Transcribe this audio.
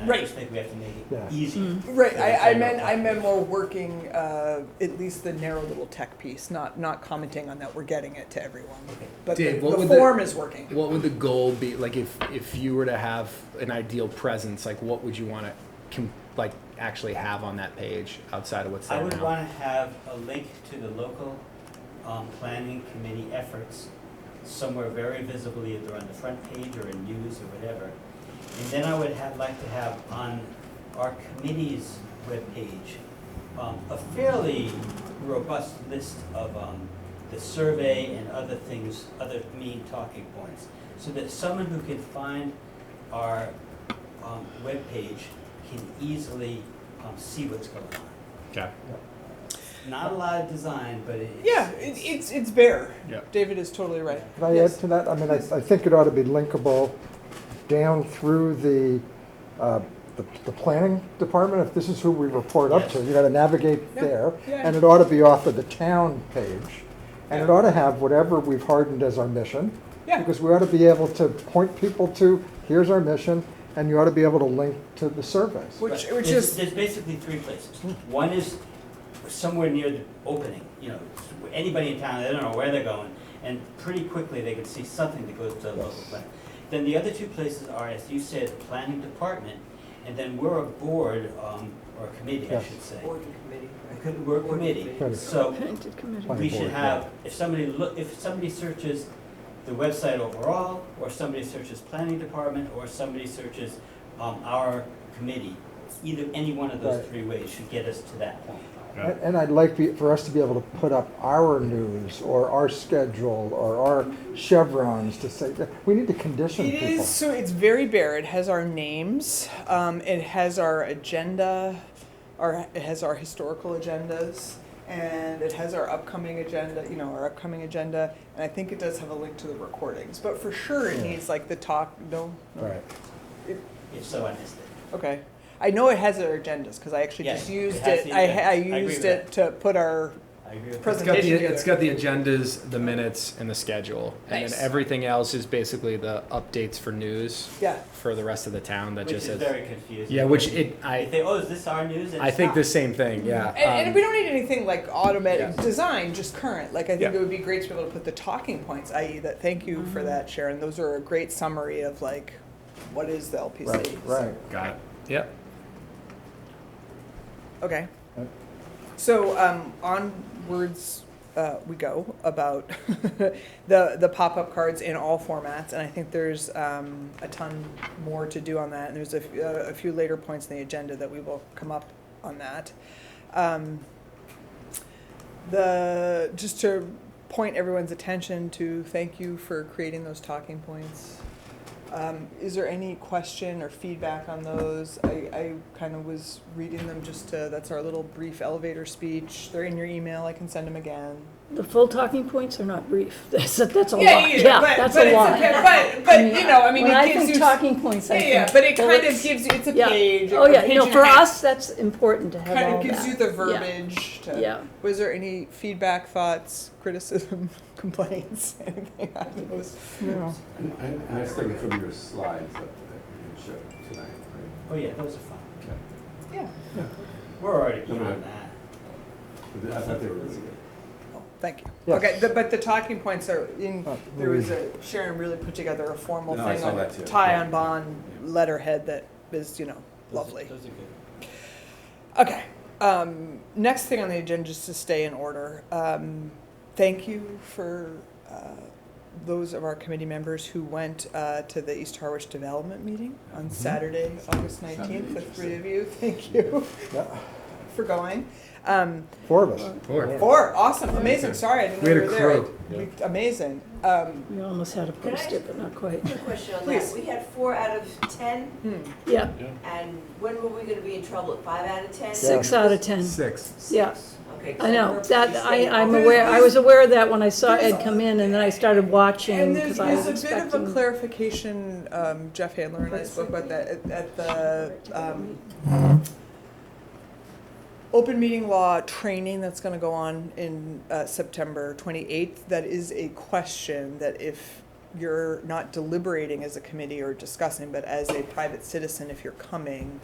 I Right. Mm. just think we have to make Yeah. it easy. Right, Yeah, I, I so- meant, I meant more working, uh, at least the narrow little tech piece, not, not commenting on that we're getting it to everyone. But the, Dave, what the would the- form is working. What would the goal be? Like, if if you were to have an ideal presence, like, what would you want to com- like actually have on that page outside of what's there I would now? want to have a link to the local um, planning committee efforts somewhere very visible, either on the front page or in news or whatever. And then I would have, like to have on our committee's webpage, um, a fairly robust list of um, the survey and other things, other main talking points, so that someone who can find our um, webpage can easily um, see what's going on. okay. Not a lot of design, but it- it's. Yeah, it, it's, it's bare. Yeah. David is totally right. Can I add Yes. to that? I mean, I, I think it ought to be linkable down through the, uh, the, the planning department, if this is who we report up to. Yes. You gotta navigate Yeah, there, yeah. and it ought to be off of the town page. And it Yeah. ought to have whatever we've hardened as our mission. Yeah. Because we ought to be able to point people to, here's our mission, and you ought to be able to link to the surveys. Which, Right. which There's- is, There's basically three places. One is somewhere near the opening, you know, anybody in town, they don't know where they're going, and pretty quickly they could see something that goes to the local Yes. plan. Then the other two places are, as you said, the planning department, and then we're a board, um, or a committee, I Yes. should say. Board and committee. Co- We're a committee, Committee. so we Planning should board, have, if somebody look, if somebody searches the website overall, or somebody searches planning department, or somebody searches, um, our committee, either, any one of those Right. three ways should get us to that point. And and I'd like be- for us to be able to put up our news or our schedule or our chevrons to say, that we need to condition it people. is, so it's very bare. It has our names, um, it has our agenda, our, it has our historical agendas, and it has our upcoming agenda, you know, our upcoming agenda, and I think it does have a link to the recordings, but for sure it Yeah. needs like the talk, no? no. Right. If so, I missed it. Okay. I know it has our agendas because I actually Yeah, just it used has it. the I, ha- I agendas. I agree used with it to put our. I agree with It's that. Present- got the Presentation it's got the agendas, the minutes, and the schedule, and Nice. then everything else is basically the updates for news Yeah. for the rest of the town. That Which just is says very confusing. yeah, which it They I think, oh, is this our news? And I it's think not. the same thing. Yeah, Um, And, and Um, we don't need anything like automatic Yeah. design, just current. Like I think Yeah. it would be great to be able to put the talking points, i.e., that thank you for that, Sharon. Those are a great summary of like what is the LPC. Right, right. got it. Yep. Okay. Right. So um, onwards uh, we go about the the pop up cards in all formats, and I think there's um, a ton more to do on that. And there's a, f- uh, a few later points in the agenda that we will come up on that. Um, the just to point everyone's attention to thank you for creating those talking points. Um, is there any question or feedback on those? I, I kind of was reading them just to, that's our little brief elevator speech. They're in your email. I can send them again. The full talking points are not brief. That's, that's a lot. Yeah, yeah, yeah, but, that's but a it's lot. okay. But, but you know, I mean, when it I gives think you. talking points, I yeah, yeah, think, but it well, kind of it's- gives you. It's a yeah. page. Oh a yeah, page you know, and a for half. us, that's important to have kind all of gives that. you the Yeah. verbiage. To, Yeah. Was there any feedback, thoughts, criticism, complaints, anything on those? Yeah. And I was thinking from your slides up that you showed tonight, right? Oh, yeah, those are fun. Okay. Yeah. We're already No, no. beyond that. I thought they were really good. Oh, Thank you. Yes. Okay, the, but the talking points are in, Oh, there was a, Sharon really put together a formal No, I thing saw on that too. tie on Yeah. bond letterhead that is, you know, Those are- lovely. Those are good. Okay, um, next thing on the agenda, just to stay in order, um, thank you for, uh, those of our committee members who went, uh, to the East Harwich Development Meeting on Saturday, August nineteenth, Sounded the Mm-hmm. interesting. three of you, thank you Yeah. for going. Um, Four of us. Four. Four, awesome, amazing. Sorry, I didn't know We you had were a there. crew. I- we- Amazing. Um, We almost had to Can I post it, but not quite. Quick question on Please. that. We had four out of 10, hmm. Yeah, and when were we going to be in trouble? At five out of 10? six out of ten. Six. Yeah, Okay. I know. That, I, I'm There's- aware, I was aware of that when I saw there's- Ed come in and then I started watching And there's, because I was there's a bit of a expecting. clarification. Um, Jeff Handler and I spoke about that at, at the um, open meeting law training that's going to go on in uh, September 28th. That is a question that if you're not deliberating as a committee or discussing, but as a private citizen, if you're coming,